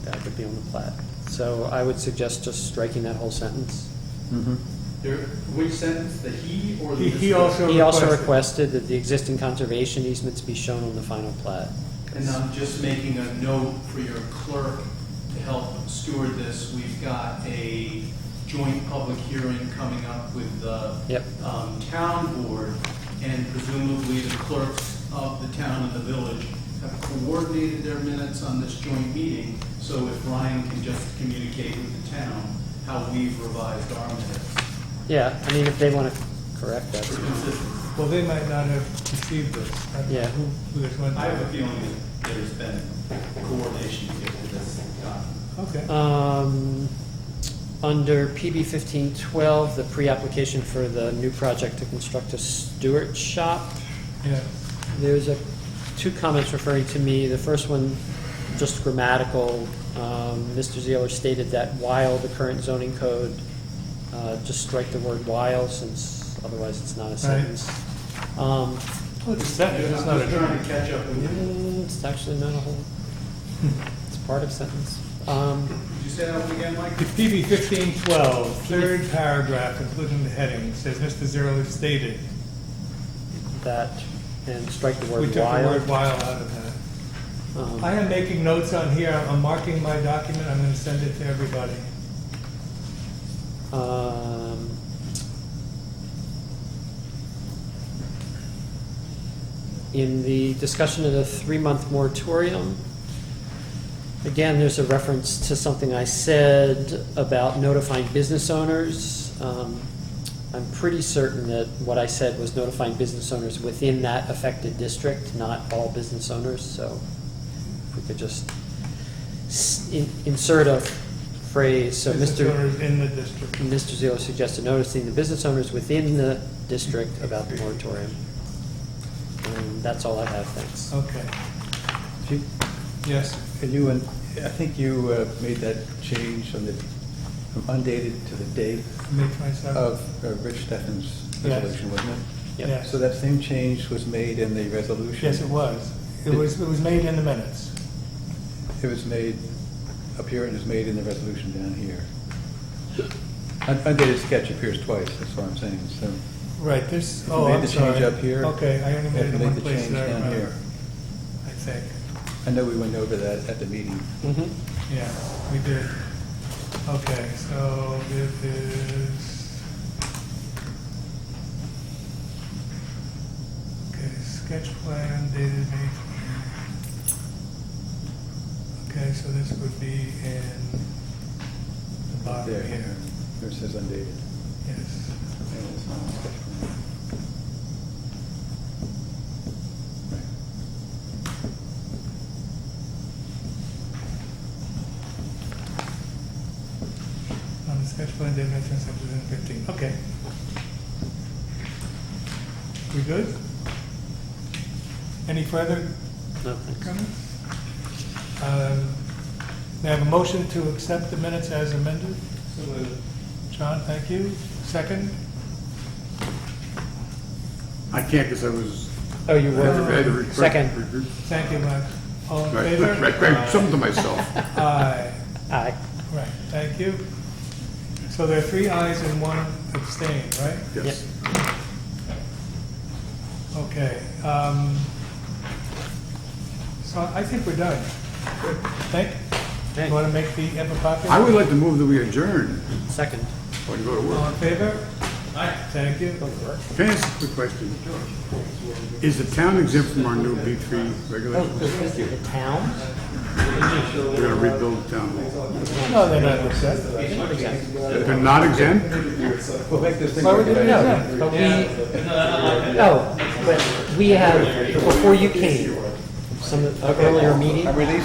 that would be on the plat. So I would suggest just striking that whole sentence. There, which sentence, the he or the? He, he this- also He also requested. requested that the existing conservation easements be shown on the final plat. And I'm just making a note for your clerk to help steward this. We've got a joint public hearing coming up with the Yep. um, town board, and presumably the clerks of the town and the village have coordinated their minutes on this joint meeting, so if Ryan can just communicate with the town how we've revised our minutes. Yeah, I mean, if they want to correct for that. consistency. Well, they might not have received this. I don't know Yeah. who- who this went I have a to. feeling that there's been coordination to get to this document. Okay. Um, Under PB 1512, the pre-application for the new project to construct a Stewart shop, Yeah, There's a, two comments referring to me. The first one, just grammatical. Um, Mr. Zeller stated that while the current zoning code, uh, just strike the word while since otherwise it's not a sentence. Um, well, it's a sentence, it's not I'm just trying a, to catch up with you. mm, It's actually not a whole, it's part of sentence. Um, Did you say that one again, Mike? the PB fifteen twelve, third paragraph, including the heading, says Mr. Zerler stated. That, and strike the We word took the word while. while out of that. Um, I am making notes on here, I'm marking my document, I'm gonna send it to everybody. Um, In the discussion of the three-month moratorium, again, there's a reference to something I said about notifying business owners. Um, I'm pretty certain that what I said was notifying business owners within that affected district, not all business owners, so if we could just s- in- insert a phrase, so Mr. Business owners In the district. Mr. Zillo suggested noticing the business owners within the district about the moratorium. And that's all I have, thanks. Okay, Chief, yes, And you, and I think you uh, made that change on the, from undated to the date May twenty-seventh. Oh. of uh, Rich Steffen's Yes. resolution, wasn't it? Yep. Yes. So that same change was made in the resolution? Yes, it was. It was, it was made in the minutes. It was made up here and is made in the resolution down here. Un- Undated sketch appears twice, that's what I'm saying, so. Right, this, If you oh, made I'm the change sorry. up here, Okay, I only you made have it to in make one the place change that I down remember, here. I think, I know we went over that at the meeting. Mhm. yeah, we did. Okay, so it is... Okay, sketch plan dated May... 20. Okay, so this would be in the bottom There, here, where it says undated. yes. And it's not a sketch plan. Right. On the sketch plan, they mentioned subdivision fifteen, okay. We good? Any further No, thanks. comments? Um, May I have a motion to accept the minutes as amended? John, thank you. Second? I can't because I was. Oh, you I had to- I had to were, re- second, re- re- Thank you, Mike. All in Right, favor? right, right, something to myself. Aye. aye. Right, thank you. So there are three ayes and one abstain, right? Yes. Okay, um, so I think we're done. Thank, you want to make the epic copy? I would like to move that we adjourn Second. or to go to All work. in favor? Aye. Thank you. Can I ask a quick question? Is the town exempt from our new B three regulations? The town? We're gonna rebuild the town. No, they're not upset. They're not exempt? We'll make this thing. Why work would it out. be? No, but we, oh, but we have, before you came, some of the earlier meeting. I'm releasing